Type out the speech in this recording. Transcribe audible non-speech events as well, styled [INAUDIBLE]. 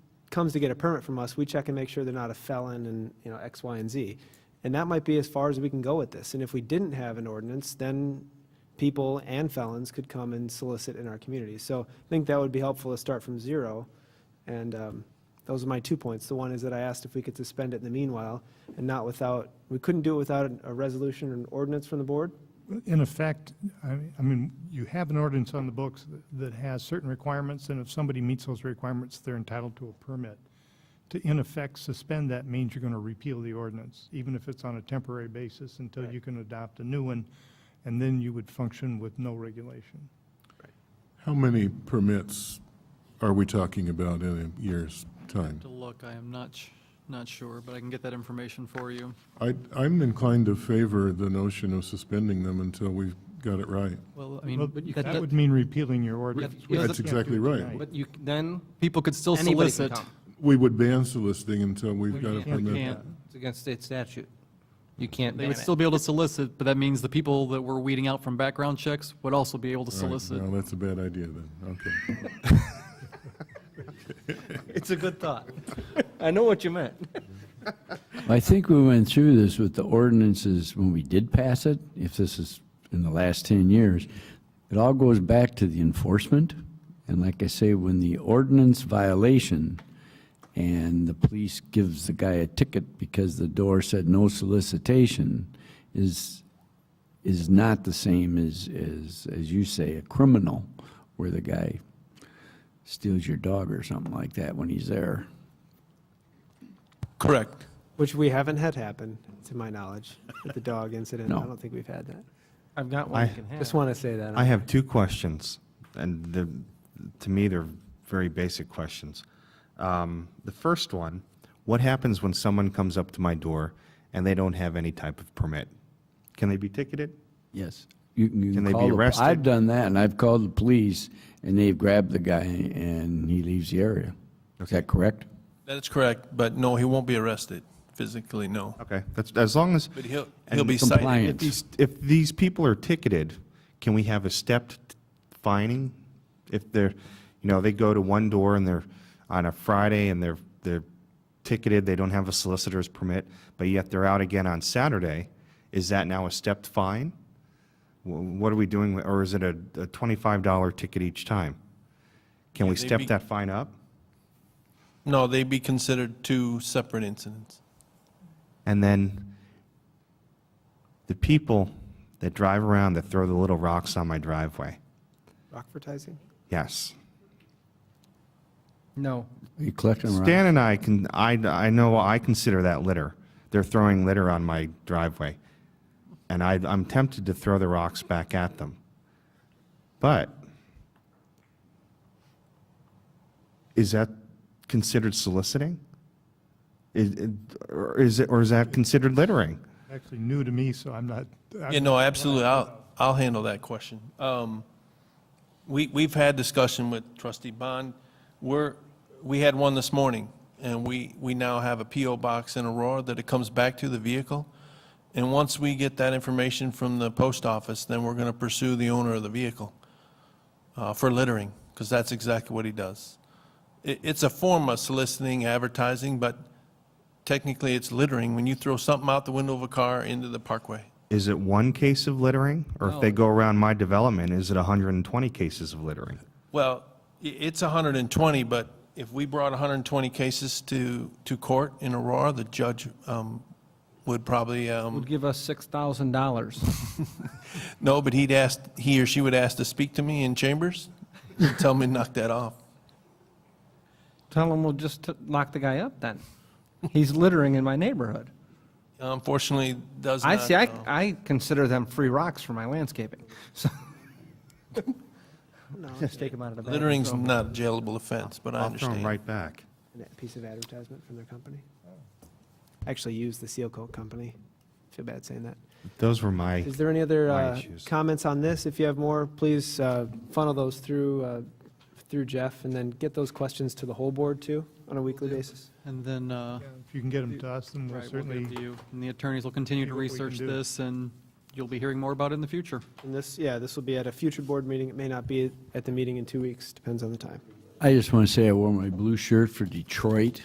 comes to get a permit from us, we check and make sure they're not a felon and, you know, X, Y, and Z. And that might be as far as we can go with this. And if we didn't have an ordinance, then people and felons could come and solicit in our community. So I think that would be helpful to start from zero. And um, those are my two points. The one is that I asked if we could suspend it in the meanwhile and not without, we couldn't do it without a resolution or an ordinance from the board. In effect, I I mean, you have an ordinance on the books that- that has certain requirements, and if somebody meets those requirements, they're entitled to a permit. To in effect suspend that means you're going to repeal the ordinance, even if it's on a temporary basis, until you can adopt a new one, and then you would function with no regulation. How many permits are we talking about in a year's time? To look, I am not, sh- not sure, but I can get that information for you. I, I'm inclined to favor the notion of suspending them until we've got it right. Well, I Well, mean, but you That that- would mean repealing your ordinance. which That's you can't do exactly right. tonight. But you, then, people could still anybody can solicit. come. We would ban soliciting until we've got a can't. We permit. can't. It's against state statute. You can't They ban would still [LAUGHS] it. be able to solicit, but that means the people that we're weeding out from background checks would also be able to All right, solicit. No, that's a bad idea then, okay. It's a good thought. I know what you meant. I think we went through this with the ordinances when we did pass it, if this is in the last 10 years. It all goes back to the enforcement. And like I say, when the ordinance violation and the police gives the guy a ticket because the door said no solicitation is, is not the same as, as, as you say, a criminal where the guy steals your dog or something like that when he's there. Correct. Which we haven't had happen, to my knowledge, with the dog incident. I No. don't think we've had that. I've got one you I- can Just have. want to say that. I have two questions, and the, to me, they're very basic questions. Um, the first one, what happens when someone comes up to my door and they don't have any type of permit? Can they be ticketed? Yes. You can, you Can they call be the- arrested? I've done that, and I've called the police, and they've grabbed the guy, and he leaves the area. Is that correct? That is correct, but no, he won't be arrested physically, no. Okay, that's, as long as, But he'll, he'll be cited. if Compliance. these, if these people are ticketed, can we have a stepped fining? If they're, you know, they go to one door and they're on a Friday and they're, they're ticketed, they don't have a solicitor's permit, but yet they're out again on Saturday, is that now a stepped fine? Wh- What are we doing, with- or is it a, a twenty-five dollar ticket each time? Can we Yeah, they'd step be- that fine up? No, they'd be considered two separate incidents. And then the people that drive around that throw the little rocks on my driveway. Rockfortising? Yes. No. You collect them around. Stan and I can, I, I know, I consider that litter. They're throwing litter on my driveway. And I, I'm tempted to throw the rocks back at them. But is that considered soliciting? Is, or is it, or is that considered littering? Actually new to me, so I'm not. I'm Yeah, no, absolutely, I'll, I'll handle that question. Um, We, we've had discussion with trustee Bond, we're, we had one this morning, and we, we now have a PO box in Aurora that it comes back to the vehicle, and once we get that information from the post office, then we're gonna pursue the owner of the vehicle uh, for littering, because that's exactly what he does. It, it's a form of soliciting, advertising, but technically it's littering when you throw something out the window of a car into the parkway. Is it one case of littering? Or if they go around my development, is it 120 cases of littering? Well, i- it's 120, but if we brought 120 cases to, to court in Aurora, the judge um, would probably, Would um, give us six thousand dollars. no, but he'd ask, he or she would ask to speak to me in chambers, and tell me to knock that off. Tell them we'll just t- lock the guy up then. He's littering in my neighborhood. Unfortunately, does not. I see, I, uh, I consider them free rocks for my landscaping, [LAUGHS] so. [LAUGHS] Just take them out of the bag. Littering's not a jailable offense, but I I'll throw them understand. right back. And that piece of advertisement from their company? Oh. Actually used the seal coat company. Feel bad saying that. Those were my, Is there any other My uh, issues. comments on this? If you have more, please uh, funnel those through, uh, through Jeff, and then get those questions to the whole board too, on a weekly basis. And then, uh, If you can get them to us, then we'll right, we'll get certainly it to you. And the attorneys will continue see to what we can research do. this, and you'll be hearing more about it in the future. And this, yeah, this will be at a future board meeting. It may not be at the meeting in two weeks, depends on the time. I just want to say I wore my blue shirt for Detroit